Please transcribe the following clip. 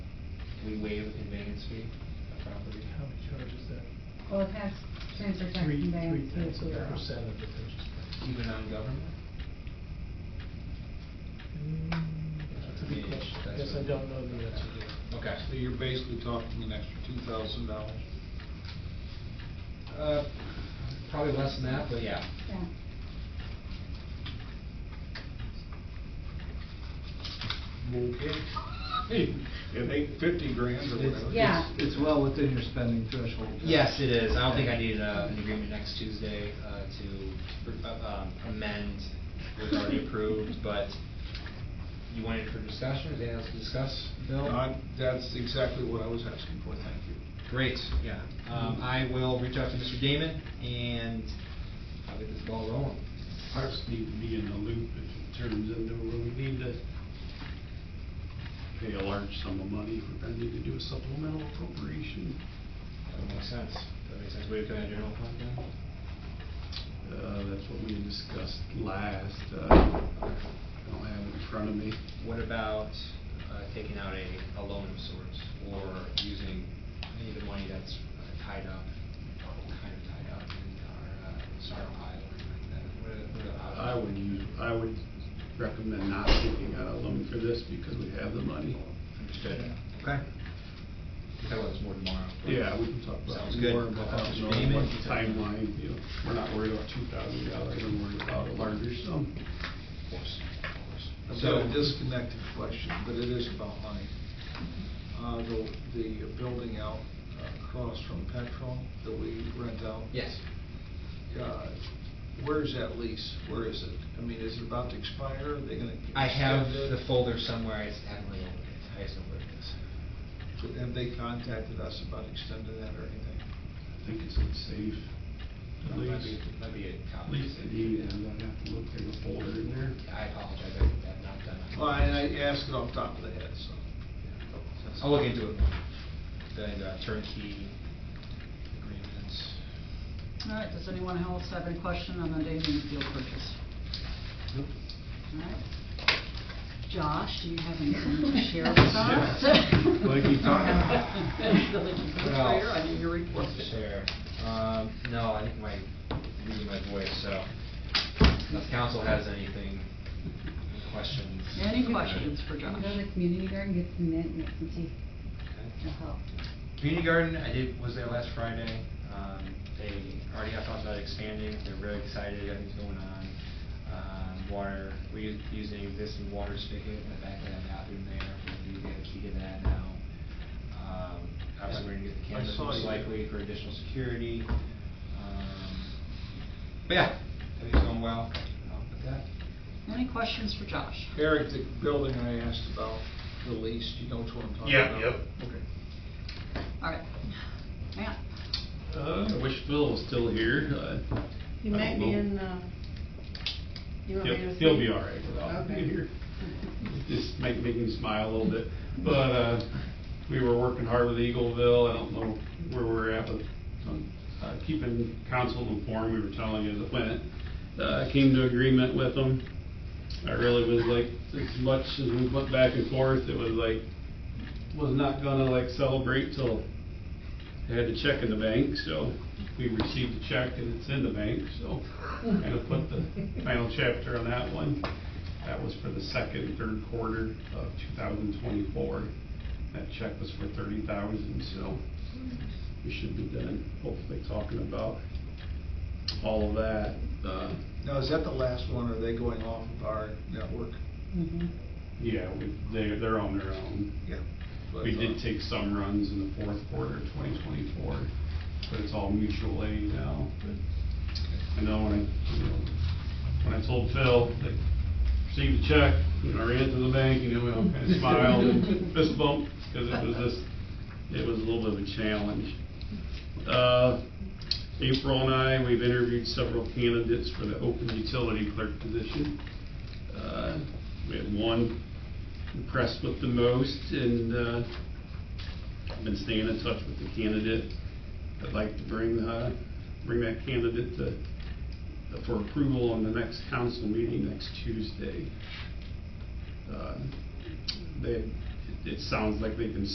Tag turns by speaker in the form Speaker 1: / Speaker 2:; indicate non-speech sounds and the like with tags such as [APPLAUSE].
Speaker 1: we waive the conveyance fee of property?
Speaker 2: How many charges that?
Speaker 3: Well, it has transfer tax
Speaker 2: Three, three
Speaker 3: and balance.
Speaker 2: tenths of a percent of the purchase price.
Speaker 1: Even on government?
Speaker 2: Mm, That's a good question. I guess I don't know the answer to that.
Speaker 1: Okay.
Speaker 4: So you're basically talking an extra two thousand dollars.
Speaker 1: Uh, Probably less than that, but yeah.
Speaker 3: Yeah.
Speaker 4: Okay. It ain't fifty grand or whatever.
Speaker 3: Yeah.
Speaker 5: It's well within your spending threshold.
Speaker 1: Yes, it is. I don't think I need uh, an agreement next Tuesday uh, to uh, um, amend what's already approved, but you wanted for discussion, is there anything else to discuss, Bill?
Speaker 4: I- That's exactly what I was asking for, thank you.
Speaker 1: Great, yeah. Um, I will reach out to Mr. Damon and I'll get this ball rolling.
Speaker 6: Parks need to be in the loop if it turns into, well, we need to pay a large sum of money, we're gonna need to do a supplemental appropriation.
Speaker 1: That makes sense. That makes sense. Wait, can I general fund then?
Speaker 6: Uh, that's what we had discussed last, uh, I don't have it in front of me.
Speaker 1: What about uh, taking out a, a loan of sorts or using any of the money that's uh, tied up, or kind of tied up in our, uh, SAR pile or anything like that? What are- what are the
Speaker 6: I
Speaker 1: options?
Speaker 6: would use, I would recommend not taking out a loan for this because we have the money.
Speaker 1: Understood. Okay. We'll talk about this more tomorrow.
Speaker 6: Yeah, we can talk about
Speaker 1: Sounds
Speaker 6: it
Speaker 1: good.
Speaker 6: more about, you
Speaker 1: Mr.
Speaker 6: know,
Speaker 1: Damon?
Speaker 6: what the timeline, you know, we're not worried about two thousand dollars, we're worried about a larger sum.
Speaker 1: Of course, of course.
Speaker 4: I've
Speaker 1: So-
Speaker 4: got a disconnected question, but it is about money. Uh, the, the building out across from Petrol that we rent out.
Speaker 1: Yes.
Speaker 4: Uh, Where is that lease? Where is it? I mean, is it about to expire? Are they gonna?
Speaker 1: I have
Speaker 4: extend
Speaker 1: the
Speaker 4: it?
Speaker 1: folder somewhere, I just haven't really opened it, I just know where it is.
Speaker 4: Have they contacted us about extending that or anything?
Speaker 6: I think it's in safe. At
Speaker 1: Might
Speaker 6: least,
Speaker 1: be, might be a
Speaker 6: at
Speaker 1: copy.
Speaker 6: least it is, and I'd have to look in the folder in there.
Speaker 1: I apologize, I think that not done.
Speaker 4: Well, I, I asked it off the top of the head, so.
Speaker 1: I'll look into it more. Then uh, turnkey agreements.
Speaker 7: All right, does anyone else have any question on the Daily Field purchase?
Speaker 1: Nope.
Speaker 7: All right. Josh, do you have anything to share with us?
Speaker 6: Like you talked-
Speaker 7: The leaky [LAUGHS] refrigerator, I knew your report.
Speaker 1: Sure. Um, no, I think my, losing my voice, so. Unless council has anything, any questions.
Speaker 7: Any questions for
Speaker 3: You
Speaker 7: Josh?
Speaker 3: can go to the community garden, get some mint, make some tea.
Speaker 1: Okay.
Speaker 3: That'll help.
Speaker 1: Community Garden, I did, was there last Friday. Um, they already have talked about expanding, they're really excited, everything's going on. Um, water, we us- use an existing water spigot in the back of that bathroom there, we do get a key to that now. Um, obviously, we're gonna get the
Speaker 4: I
Speaker 1: cameras
Speaker 4: saw
Speaker 1: most
Speaker 4: you.
Speaker 1: likely for additional security. Um, But yeah, everything's going well, I'll put that.
Speaker 7: Any questions for Josh?
Speaker 4: Eric, the building I asked about, the lease, you know which one I'm talking
Speaker 6: Yeah,
Speaker 4: about?
Speaker 6: yep.
Speaker 4: Okay.
Speaker 7: All right. Matt?
Speaker 6: Uh, I wish Phil was still here, uh.
Speaker 8: He
Speaker 6: I
Speaker 8: might
Speaker 6: don't
Speaker 8: be
Speaker 6: know.
Speaker 8: in, uh, you want me
Speaker 6: He'll-
Speaker 8: to
Speaker 6: He'll
Speaker 8: see?
Speaker 6: be all right without
Speaker 8: Okay.
Speaker 6: being here. Just make, make me smile a little bit. But, uh, we were working hard with Eagleville. I don't know where we're at, but, um, uh, keeping council informed, we were telling you as it went. Uh, came to agreement with them. I really was like, as much as we went back and forth, it was like, was not gonna like celebrate till I had the check in the bank, so we received the check and it's in the bank, so I'm gonna put the final chapter on that one. That was for the second, and third quarter of two thousand twenty-four. That check was for thirty thousand, so we should be done, hopefully talking about all of that. Uh,
Speaker 4: Now, is that the last one, or are they going off of our network?
Speaker 8: Mhm.
Speaker 6: yeah, we, they, they're on their own.
Speaker 4: Yeah.
Speaker 6: We did
Speaker 4: uh,
Speaker 6: take some runs in the fourth quarter of 2024, but it's all mutual aid now. But I know when I, you know, when I told Phil, like, received a check, and I ran to the bank, you know, we all kind of smiled and fist bumped, because it was just, it was a little bit of a challenge. Uh, April and I, we've interviewed several candidates for the open utility clerk position. Uh, We had one impressed with the most, and uh, I've been staying in touch with the candidate. I'd like to bring, uh, bring that candidate to, for approval on the next council meeting next Tuesday. Uh, They, it sounds like they've been